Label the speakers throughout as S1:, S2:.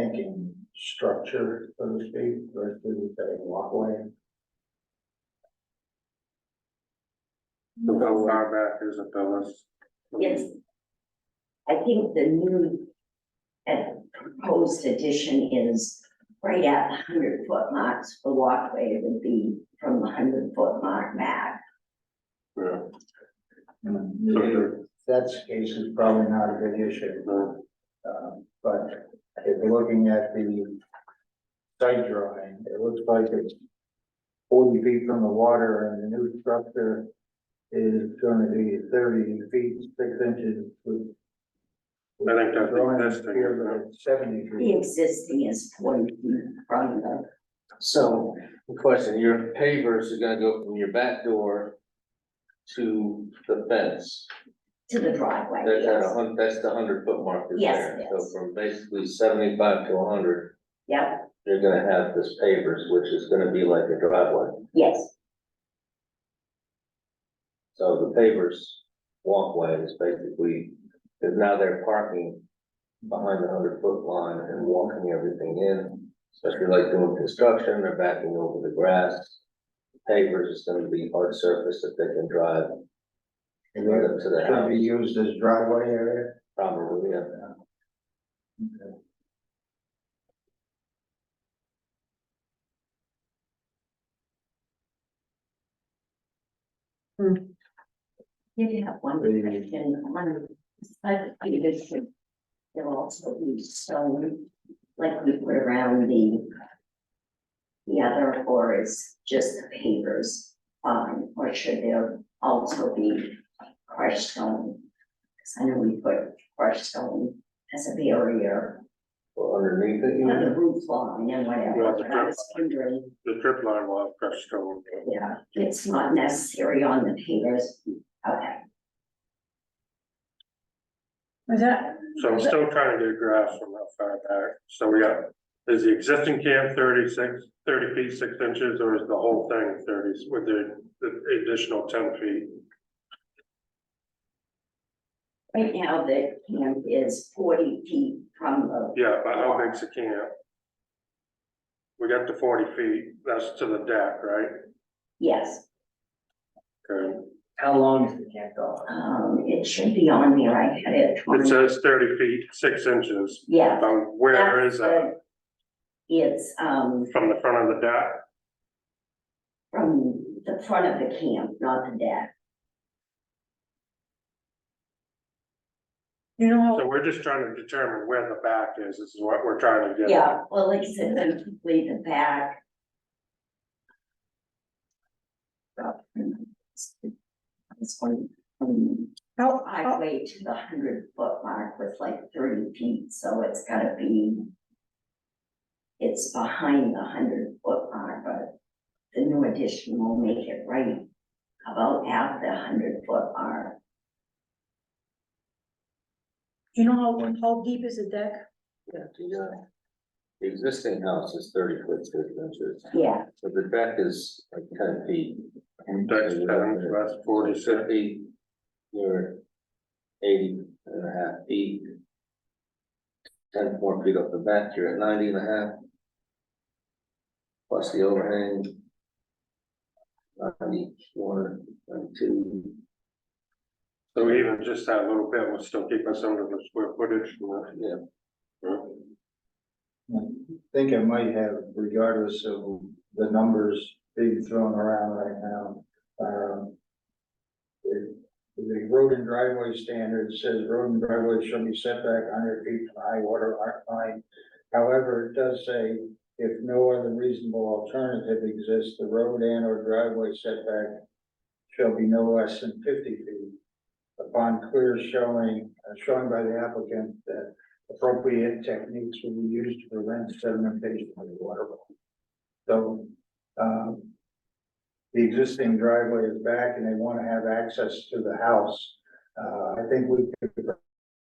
S1: thinking structure, so to speak, versus a walkway.
S2: Look how far back is it, Phyllis?
S3: Yes. I think the new and proposed addition is right at the hundred foot marks, the walkway would be from the hundred foot mark back.
S2: Yeah. So
S1: If
S2: there-
S1: That's the case, is probably not a good issue,
S2: no,
S1: um, but if you're looking at the site drawing, it looks like it's forty feet from the water and the new structure is gonna be thirty feet, six inches with.
S2: I think that's
S1: Drawing
S2: existing,
S1: here,
S2: isn't
S1: but it's Seventy feet.
S3: The existing is forty feet from the,
S4: So, the question, your pavers are gonna go from your back door to the fence.
S3: to the driveway,
S4: That's at a
S3: yes.
S4: hun, that's the hundred foot mark is
S3: Yes,
S4: there.
S3: yes.
S4: So from basically seventy-five to hundred,
S3: Yep,
S4: you're gonna have this pavers, which is gonna be like a driveway.
S3: yes,
S4: So the pavers walkway is basically, is now they're parking behind the hundred foot line and walking everything in. Especially like doing construction, they're backing over the grass. Pavers is gonna be hard surface that they can drive
S1: Is
S4: Right
S1: that-
S4: up to the
S1: Should be
S4: house,
S1: used as driveway area.
S4: probably, yeah.
S3: you have one
S1: The-
S3: question, one, I think this should. There'll also be stone, like we put around the. The other, or is just the pavers, um, or should there also be crushed stone? Cause I know we put crushed stone as a barrier
S4: Well, underneath it, you
S3: on the
S4: know,
S3: roof line and whatever,
S2: Yeah, the
S3: but I was wondering.
S2: The drip line will have crushed stone.
S3: Yeah, it's not necessary on the pavers, okay.
S5: Was that,
S2: So I'm still trying to get a grasp from how far back. So we got, is the existing camp 36 30 feet, six inches, or is the whole thing thirty with the, the additional ten feet?
S3: Right now, the camp is forty feet from the,
S2: Yeah, but how big's the camp? We got the forty feet, that's to the deck, right?
S3: yes,
S2: Okay.
S1: How long is the camp dog?
S3: um, it should be on there, I had it.
S2: It
S3: 20
S2: says thirty feet, six inches.
S3: Yeah.
S2: Um, where is that?
S3: It's, um,
S2: From the front of the deck?
S3: from the front of the camp, not the deck,
S5: you know,
S2: So
S5: how
S2: we're just trying to determine where the back is, this is what we're trying to get. at.
S3: yeah, well, like I said, then complete the back. This one, um,
S5: how, how,
S3: highway to the hundred foot mark was like thirty feet, so it's gotta be. It's behind the hundred foot mark, but the new addition will make it right about at the hundred foot mark.
S5: you know, how, how deep is the deck?
S4: yeah, the, uh, the existing house is thirty foot six inches,
S3: Yeah,
S4: so the deck is like ten feet.
S2: Deck's ten, so that's forty-six.
S4: Fifty, you're eighty and a half feet. Ten more feet off the back, you're at ninety and a half. Plus the overhang. Ninety-one, ninety-two.
S2: So even just that little bit will still keep us under the square footage. uh,
S4: Yeah,
S1: I think I might have, regardless of the numbers being thrown around right now, um. The, the road and driveway standard says road and driveway shall be set back hundred feet from high water line. However, it does say if no other reasonable alternative exists, the road and or driveway setback shall be no less than fifty feet. Upon clear showing, uh, showing by the applicant that appropriate techniques will be used to prevent sedimentation of the water. body. So, um, the existing driveway is back and they want to have access to the house. Uh, I think we could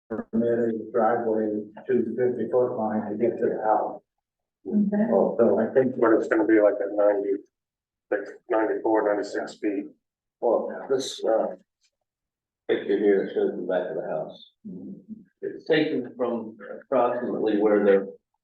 S1: permit a driveway to the fifty foot line to get to the house. So I think
S2: But it's gonna be like a ninety, like ninety-four, ninety-six feet.
S4: well, this, uh. Picture Mhm. here shows the back of the house. It's taken from approximately where the